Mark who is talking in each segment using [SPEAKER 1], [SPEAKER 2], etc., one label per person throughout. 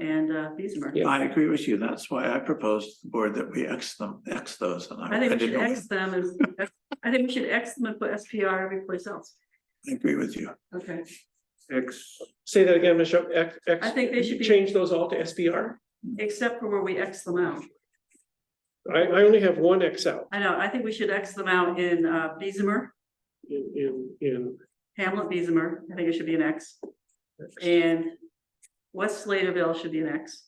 [SPEAKER 1] and uh, Beesimer.
[SPEAKER 2] Yeah.
[SPEAKER 3] I agree with you. That's why I proposed to the board that we X them, X those. and
[SPEAKER 1] I think we should
[SPEAKER 3] didn't-
[SPEAKER 1] X them and, I think we should X them and put SPR every place else.
[SPEAKER 3] I Agree with you.
[SPEAKER 1] Okay,
[SPEAKER 4] X, say that again, Michelle, X, X.
[SPEAKER 1] I think they should be-
[SPEAKER 4] Change those all to SBR.
[SPEAKER 1] except for where we X them out.
[SPEAKER 4] I, I only have one X out
[SPEAKER 1] I know, I think we should X them out in uh, Beesimer,
[SPEAKER 4] in, in, in.
[SPEAKER 1] Hamlet Beesimer. I think it should be an X. And West Sladeville should be an X.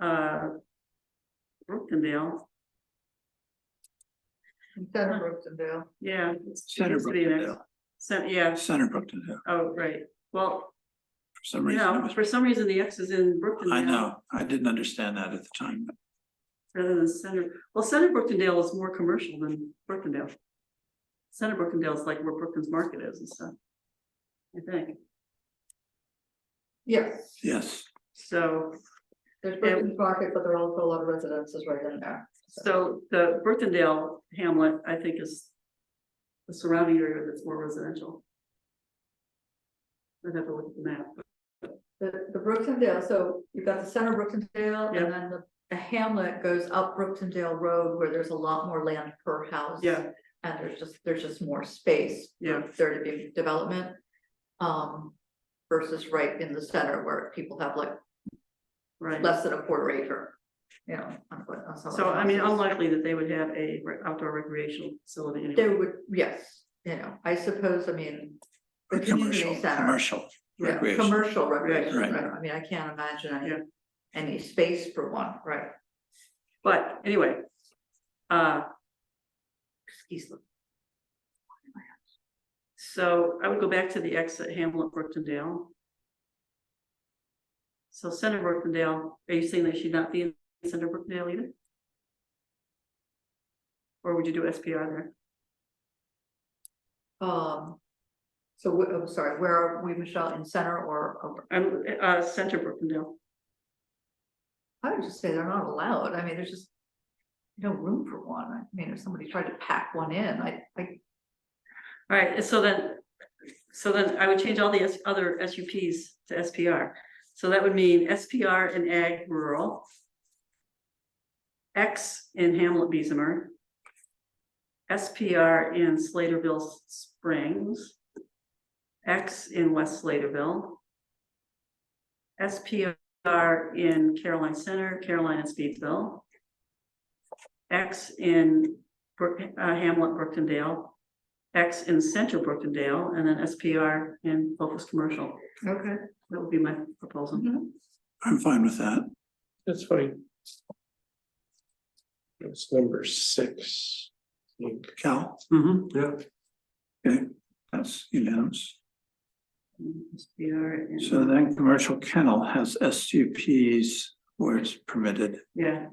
[SPEAKER 1] Uh. Brookendale,
[SPEAKER 5] Instead of Brooksonville.
[SPEAKER 1] yeah. it
[SPEAKER 3] Center
[SPEAKER 1] needs to be an X.
[SPEAKER 3] Brookendale.
[SPEAKER 1] Cent- yeah,
[SPEAKER 3] Center Brookton Hill,
[SPEAKER 1] oh, right. Well,
[SPEAKER 3] for some
[SPEAKER 1] you
[SPEAKER 3] reason. it
[SPEAKER 1] know,
[SPEAKER 3] was-
[SPEAKER 1] for some reason the X is in Brookendale.
[SPEAKER 3] I know. I didn't understand that at the time.
[SPEAKER 1] Rather than Center, well, Center Brookendale is more commercial than Brookendale. Center Brookendale is like where Brookins Market is and stuff. I think,
[SPEAKER 5] Yes,
[SPEAKER 3] Yes,
[SPEAKER 1] so,
[SPEAKER 5] there's Brookson's Market, but there are also a lot of residences right in there.
[SPEAKER 1] so the Brookendale hamlet, I think is. The surrounding area that's more residential. I'd have to look at the map,
[SPEAKER 5] The, the Brooksonville, so you've got the center of Brooksonville
[SPEAKER 1] Yeah.
[SPEAKER 5] and then the, the hamlet goes up Brooksonville Road where there's a lot more land per house.
[SPEAKER 1] yeah,
[SPEAKER 5] And there's just, there's just more space. for
[SPEAKER 1] Yeah.
[SPEAKER 5] There to be development. Um, versus right in the center where people have like
[SPEAKER 1] right.
[SPEAKER 5] less than a quarter acre. You know. on- on some of
[SPEAKER 1] So
[SPEAKER 5] the
[SPEAKER 1] I mean,
[SPEAKER 5] houses.
[SPEAKER 1] unlikely that they would have a re- outdoor recreational facility
[SPEAKER 5] They
[SPEAKER 1] anyway.
[SPEAKER 5] would, yes, you know, I suppose, I mean. the community
[SPEAKER 3] commercial,
[SPEAKER 5] center,
[SPEAKER 3] commercial.
[SPEAKER 5] yeah,
[SPEAKER 3] recreation.
[SPEAKER 5] Commercial recreation,
[SPEAKER 3] Right.
[SPEAKER 5] right, I mean, I can't imagine any,
[SPEAKER 1] Yeah.
[SPEAKER 5] any space for one, right?
[SPEAKER 1] But anyway. Uh,
[SPEAKER 5] Excuse me.
[SPEAKER 1] So I would go back to the exit Hamlet Brookendale. So Center Brookendale, are you saying they should not be in Center Brookendale either? Or would you do SPR there?
[SPEAKER 5] Um. So, wh- I'm sorry, where are we, Michelle, in center or, or-
[SPEAKER 1] I'm, uh, Center Brookendale,
[SPEAKER 5] I would just say they're not allowed, I mean, there's just. No room for one, I mean, if somebody tried to pack one in, I, I,
[SPEAKER 1] all right, and so then, so then I would change all the S- other SUPs to SPR. So that would mean SPR in ag rural. X in Hamlet Beesimer. SPR in Sladeville Springs. X in West Sladeville. SPR in Caroline Center, Caroline and Speedsville. X in Brook, uh, Hamlet Brookendale. X in Central Brookendale, and then SPR in Focus Commercial.
[SPEAKER 5] okay,
[SPEAKER 1] That would be my proposal.
[SPEAKER 3] I'm fine with that.
[SPEAKER 4] That's fine. That's number six. I think.
[SPEAKER 3] Cal,
[SPEAKER 1] Mm-hmm.
[SPEAKER 3] okay, that's unanimous.
[SPEAKER 1] SPR and-
[SPEAKER 3] So then commercial kennel has SUPs where it's permitted.
[SPEAKER 1] yeah,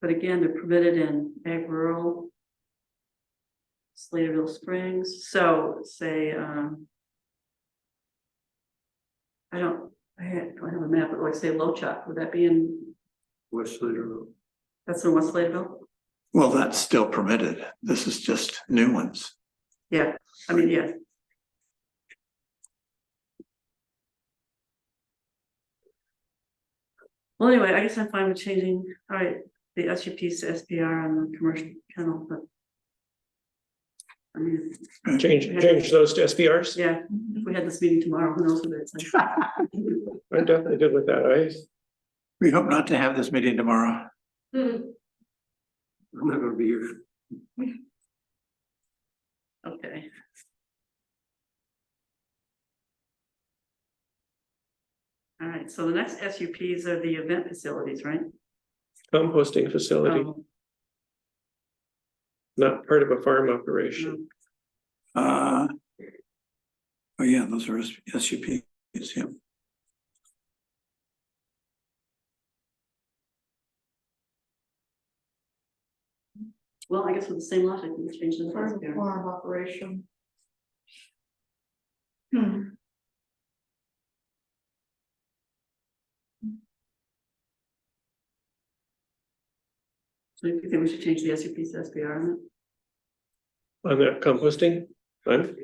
[SPEAKER 1] but again, they're permitted in ag rural. Sladeville Springs, so say, um. I don't, I had, do I have a map, but like say Lochop, would that be in,
[SPEAKER 4] West Slater.
[SPEAKER 1] that's in West Sladeville?
[SPEAKER 3] Well, that's still permitted. This is just new ones.
[SPEAKER 1] Yeah, I mean, yeah. Well, anyway, I guess I'm fine with changing, all right, the SUPs to SPR on the commercial kennel, but. I mean,
[SPEAKER 4] Change, change those to SBRs.
[SPEAKER 1] yeah, if we had this meeting tomorrow, who knows what it's like.
[SPEAKER 4] I'm definitely good with that. I,
[SPEAKER 3] We hope not to have this meeting tomorrow.
[SPEAKER 4] I'm not gonna be here.
[SPEAKER 1] Okay. All right, so the next SUPs are the event facilities, right?
[SPEAKER 4] Composting facility,
[SPEAKER 1] Um,
[SPEAKER 4] not part of a farm operation.
[SPEAKER 1] Um,
[SPEAKER 3] Uh. Oh, yeah, those are SUPs, yeah.
[SPEAKER 1] Well, I guess with the same logic, we can change the
[SPEAKER 5] farm,
[SPEAKER 1] first there.
[SPEAKER 5] farm operation. Hmm.
[SPEAKER 1] So you think we should change the SUP to SPR on it?
[SPEAKER 4] On that composting, I'm,